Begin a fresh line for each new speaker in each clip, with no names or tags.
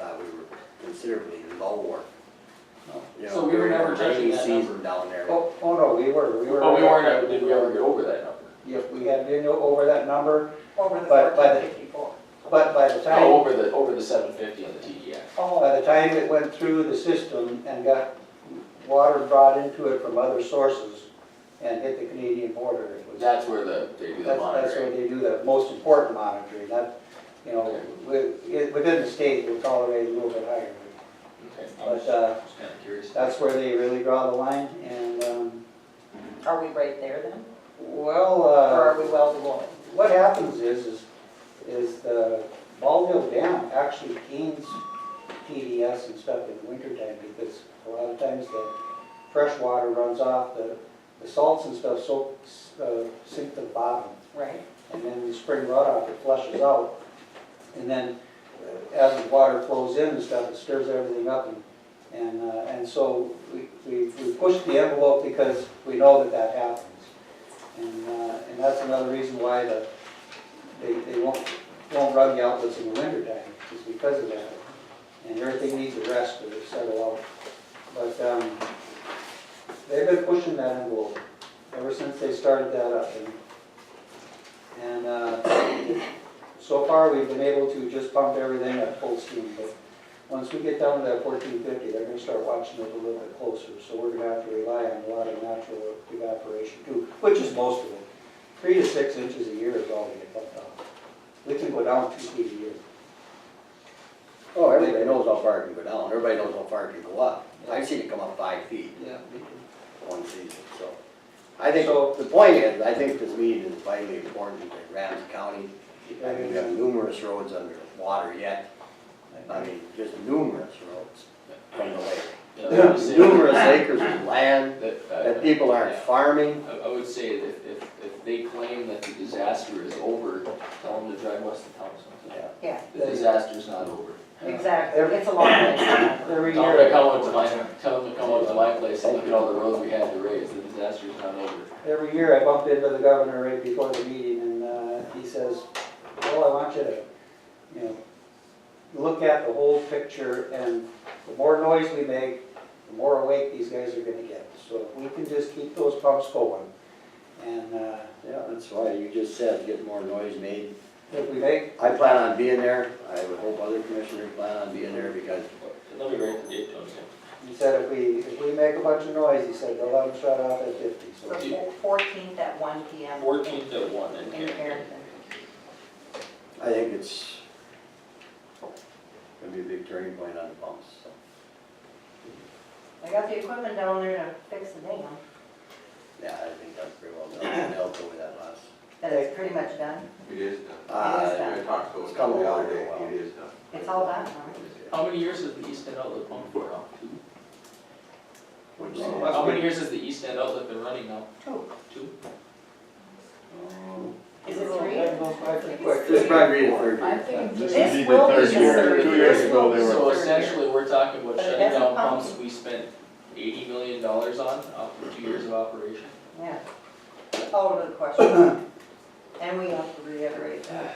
uh, considerably lower. You
So
know,
we were
during the
never touching
rainy
that
Season down there.
Oh, oh no, we were, we were.
But we weren't, ever- did we ever get over that number?
Yep, we had been over that number,
Over the
But- but-
fourteen fifty-four.
but by the
No,
time,
over the, over the seven fifty on the TDI.
Oh.
by the time it went through the system and got water brought into it from other sources and hit the Canadian border, it was.
That's where the, they do the
That's, that's where
monitoring.
they do the most important monitoring, that, you know, wi- i- within the state, we tolerate a little bit higher.
Okay, I was
But, uh,
just kinda curious.
that's where they really draw the line, and, um,
Are we right there then?
well,
Or
uh,
are we well below it?
what happens is, is, is the Ball Mill Dam actually gains TDS and stuff in the wintertime, because a lot of times the fresh water runs off, the, the salts and stuff soaks, uh, sink to the bottom.
Right?
and then the spring runoff, it flushes out. And then uh, as the water flows in and stuff, it stirs everything up. and- And, uh, and so we, we we push the envelope because we know that that happens. And, uh, and that's another reason why the, they, they won't, won't run the outlets in the winter time, is because of that. And everything needs a rest to settle out. But, um, they've been pushing that envelope ever since they started that up. And and uh, so far, we've been able to just pump everything at full steam, but once we get down to that fourteen fifty, they're gonna start watching it a little bit closer, so we're gonna have to rely on a lot of natural evaporation too, which is most of it. Three to six inches a year is all we get pumped out. We can go down two feet a year.
Oh, everybody knows how far it can go down, everybody knows how far it can go up. I've seen it come up five feet
Yeah.
one season, so. I think,
So-
the point is, I think this meeting is vitally important to Ramsey County. I mean, we have numerous roads under water yet, I mean, just numerous roads from the lake.
You know, I would say-
Numerous acres of land
That, uh,
that people aren't
yeah.
farming.
I, I would say that if, if they claim that the disaster is over, tell them to drive west of town sometime.
Yeah,
The disaster's not over.
exactly.
Every-
It's a long way.
Every
Tell them to
year,
come up to my, tell them to come up to my place and look at all the roads we had to raise, the disaster's not over.
every year I bumped into the governor right before the meeting and uh, he says, well, I want you to, you know, look at the whole picture and the more noise we make, the more awake these guys are gonna get. So if we can just keep those pumps going. And uh,
Yeah, that's why you just said, get more noise made.
if we make,
I plan on being there, I would hope other commissioners plan on being there because
Let me write the date down again.
he said, if we, if we make a bunch of noise, he said, they'll let them shut off at fifty. So
Fourteenth at one P M.
Fourteenth at one in
In
Carrington.
Harrington.
I think it's gonna be a big turning point on the pumps, so.
I got the equipment down there to fix the dam.
Yeah, I think that's pretty well done, They'll go with that last.
That is pretty much done.
It is done.
Uh,
I talked to him
It's
the
come a long
other day,
way.
it is done.
It's all done, huh?
How many years has the East End outlet pumped for now?
Which,
Well,
How many years has the East End outlet been running now?
Two.
Two?
Is it three?
That goes by pretty quick.
this probably be the third
I'm
year.
thinking
This
this
would be
will
the
be
third
the
year,
third
two
year.
years ago they
So
were.
essentially, we're talking about
But it
shutting down
hasn't pumped.
pumps we spent eighty million dollars on after two years of operation.
Yeah. Out of the Oh, question. And we have to reiterate that.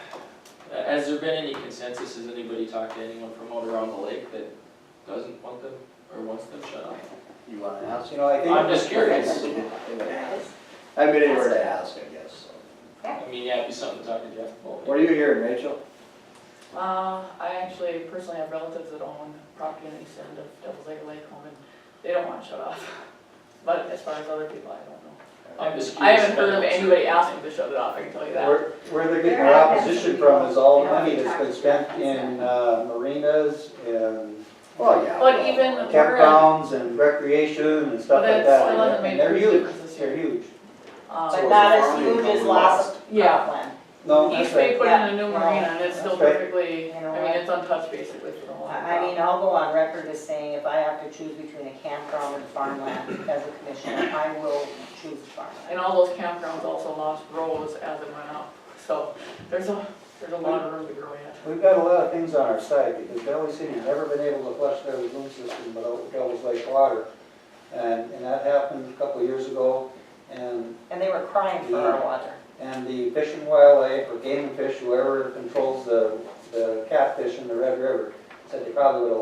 Uh, Has there been any consensus, has anybody talked to anyone from out around the lake that doesn't want them, or wants them shut off?
You wanna ask?
You know, I think.
I'm just curious,
I've been anywhere to ask, I guess, so.
I mean, yeah, it'd be something to talk to Jeff about.
What are you hearing, Rachel?
Uh, I actually personally have relatives that own property in the east end of Devil's Lake Lake Home, and they don't want it shut off. But as far as other people, I don't know. Um,
I'm just
I
curious.
haven't heard of anybody asking to shut it off, I can tell you that.
Where, where they're getting their opposition from is all the money that's been spent in uh, marinas and
Well, yeah.
But
well,
even-
campgrounds and recreation and stuff like
But it still
that.
hasn't
And
made
they're
a
huge,
difference this
they're
year.
huge.
Um,
But not as huge as last
Yeah.
upland.
No, that's
East
right.
Bay put in a new
Yeah.
marina, and it's still
That's right.
perfectly,
You know
I mean,
what?
it's untouched basically for the whole.
I I mean, I'll go on record as saying if I have to choose between a campground and farmland as a commissioner, I will choose
And
farmland.
all those campgrounds also lost rows as it went up, so there's a, there's a lot of room to grow yet.
We've got a lot of things on our side because Valley City's never been able to flush their lagoon system without Devil's Lake water. And, and that happened a couple of years ago. And,
And they were crying for our water.
and the Fish and Wildlife or Game and Fish, whoever controls the, the catfish in the Red River, said they probably would have